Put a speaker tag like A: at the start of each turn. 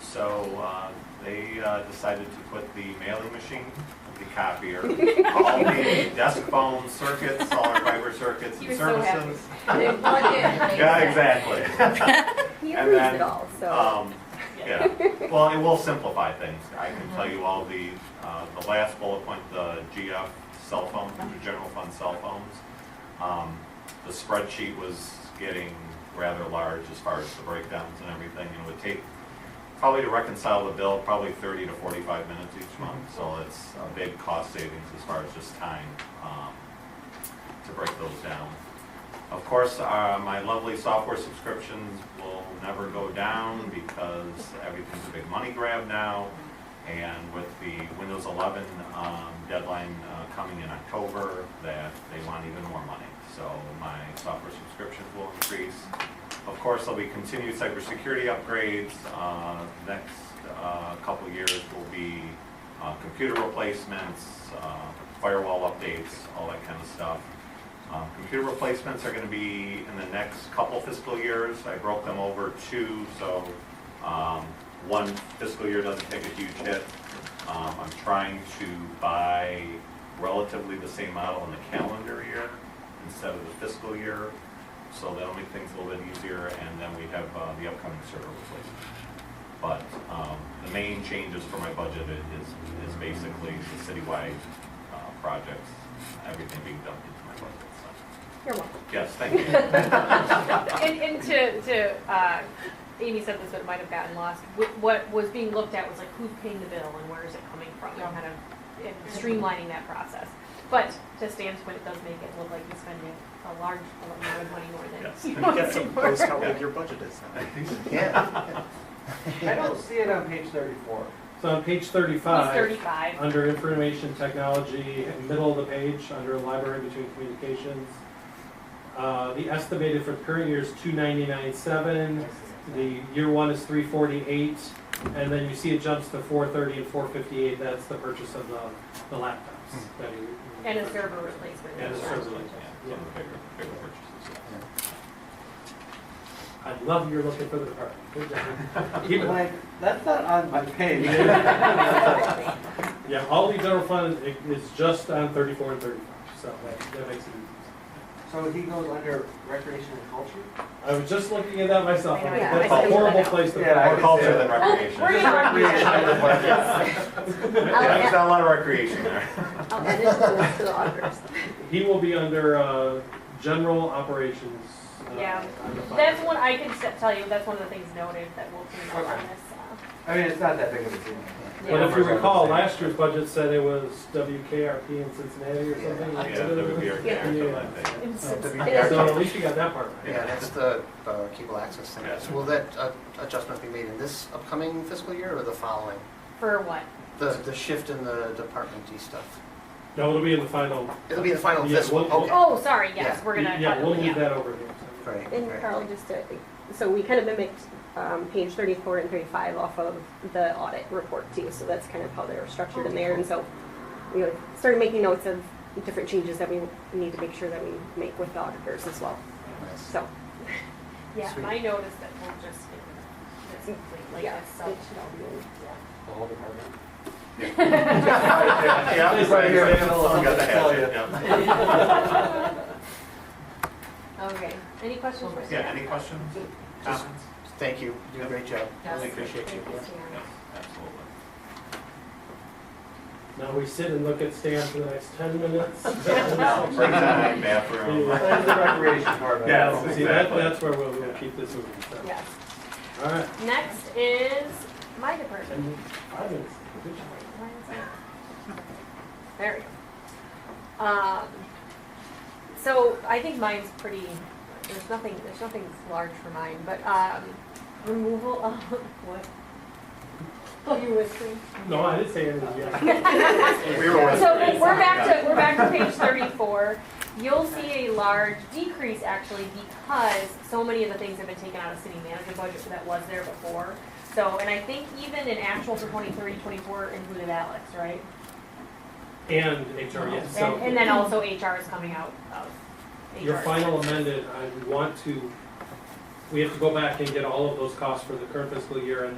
A: so uh, they uh, decided to put the mailing machine, the copier, all the desk phone circuits, all our fiber circuits
B: He
A: and
B: was so happy.
A: services.
B: They plug in. right?
A: Yeah, exactly.
C: He
A: And
C: approves
A: then,
C: it all, so.
A: Um, Yeah, well, it will simplify things. I can tell you all the, uh, the last bullet point, the GF cell phone, the general fund cell phones. Um, The spreadsheet was getting rather large as far as the breakdowns and everything, and it would take probably to reconcile the bill, probably thirty to forty-five minutes each month. So it's a big cost savings as far as just time um, to break those down. Of course, uh, my lovely software subscriptions will never go down because everything's a big money grab now. And with the Windows 11 um, deadline uh, coming in October, that they want even more money. So my software subscriptions will increase. Of course, there'll be continued cybersecurity upgrades. Uh, Next uh, couple years will be uh, computer replacements, uh, firewall updates, all that kind of stuff. Um, Computer replacements are going to be in the next couple fiscal years. I broke them over two, so um, one fiscal year doesn't take a huge hit. Um, I'm trying to buy relatively the same model in the calendar year instead of the fiscal year, so that'll make things a little bit easier, and then we have uh, the upcoming server replacement. But um, the main changes for my budget i- is, is basically the citywide uh, projects, everything being dumped into my budget. so.
C: You're welcome.
A: Yes, thank you.
B: And, and to, to, uh, Amy said this, but it might have gotten lost. Wh- What was being looked at was like who's paying the bill and where is it coming from? And kind of and streamlining that process. But to Stan's point, it does make it look like you're spending a large amount of money more than.
A: Yes.
B: you
D: Get
B: want to.
D: some post how big your budget is.
E: Yeah.
F: I don't see it on page thirty-four.
G: So on page
B: He's
G: thirty-five,
B: thirty-five.
G: under information technology, in middle of the page, under library between communications, uh, the estimated for the current year is two ninety-nine seven, the year one is three forty-eight, and then you see it jumps to four thirty and four fifty-eight, that's the purchase of the, the laptops. that you-
B: And a server replacement.
G: And a server
A: Yeah,
G: replacement,
A: some
G: yeah.
A: of the bigger, bigger purchases. yes.
G: I love you're looking for the department. Good job. Keep it.
F: Like, that's not on my page.
G: Yeah, all the general fund i- is just on thirty-four and thirty-five, so that- that makes it easy.
F: So he goes under recreation and culture?
G: I was just looking at that myself, and
C: Yeah,
G: that's
C: I
G: a
C: see
G: horrible
C: that now.
G: place to.
F: Yeah, I
A: More
F: could
A: culture
F: say
A: than
F: that.
A: recreation.
B: We're
A: Yeah,
B: gonna-
F: Recreation and budgets.
C: I'll
A: There's
C: add-
A: not a lot of recreation there.
C: I'll add it to the- to the auditors.
G: He will be under, uh, general operations. uh,
B: Yeah.
G: on the fund.
B: That's one, I can s- tell you, that's one of the things noted that we'll clean up on
F: Okay.
B: this. uh,
F: I mean, it's not that big of a deal.
G: But if you
F: Yeah.
G: recall, last year's budget said it was WKRP in Cincinnati or something. like
A: Yeah, there uh, would be
G: that.
A: a character like that.
G: So at least you got that part right.
E: Yeah, that's the uh, cable access thing.
A: Yeah.
E: So will that uh, adjustment be made in this upcoming fiscal year or the following?
B: For what?
E: The, the shift in the Department D stuff?
G: No, it'll be in the final.
E: It'll be the final
G: Yeah,
E: fiscal,
G: we'll-
E: okay.
B: Oh, sorry, yes,
E: Yeah.
B: we're gonna.
G: Yeah, we'll
B: yeah.
G: leave that over here.
E: Right,
C: And
E: right.
C: Carl, just to, so we kind of mimicked um, page 34 and 35 off of the audit report too. So that's kind of how they were structured in there. And so we like, started making notes of different changes that we need to make sure that we make with the auditors as well.
E: Nice.
C: So,
B: Yeah,
E: Sweet.
B: I noticed that we'll just, it's completely
C: yeah,
B: like
C: it
B: this,
C: should all
B: so.
C: be in.
F: The whole department.
A: Yeah,
F: It's right here.
A: someone got the hatchet, yeah.
B: Okay, any questions for
A: Yeah,
B: Stan?
A: any questions?
E: Just-
A: Comments?
E: Thank you, you did a great job.
B: Yes.
A: Really appreciate you.
B: Thank you, Stan.
A: Yes, absolutely.
G: Now we sit and look at Stan for the next ten minutes.
A: Break time, bathroom.
F: That's the recreation part of it.
A: Yeah.
G: So See, that, that's where we'll, we'll keep this moving, so.
B: Yes.
G: All right,
B: Next is my department.
G: and five minutes, good job.
B: Why is that- There we go. Um, so I think mine's pretty, there's nothing, there's nothing large for mine, but, um, removal of, what? Oh, you whispering?
G: No, I didn't say anything yet.
A: We were with
B: So
A: three.
B: we're back to, we're back to page thirty-four. You'll see a large decrease actually because so many of the things have been taken out of city manager budget that was there before. So, and I think even in actual for 23, 24 included Alex, right?
G: And HR, yes,
B: And, and
G: so
B: then also HR is coming out of HR.
G: your final amended, I want to, we have to go back and get all of those costs for the current fiscal year and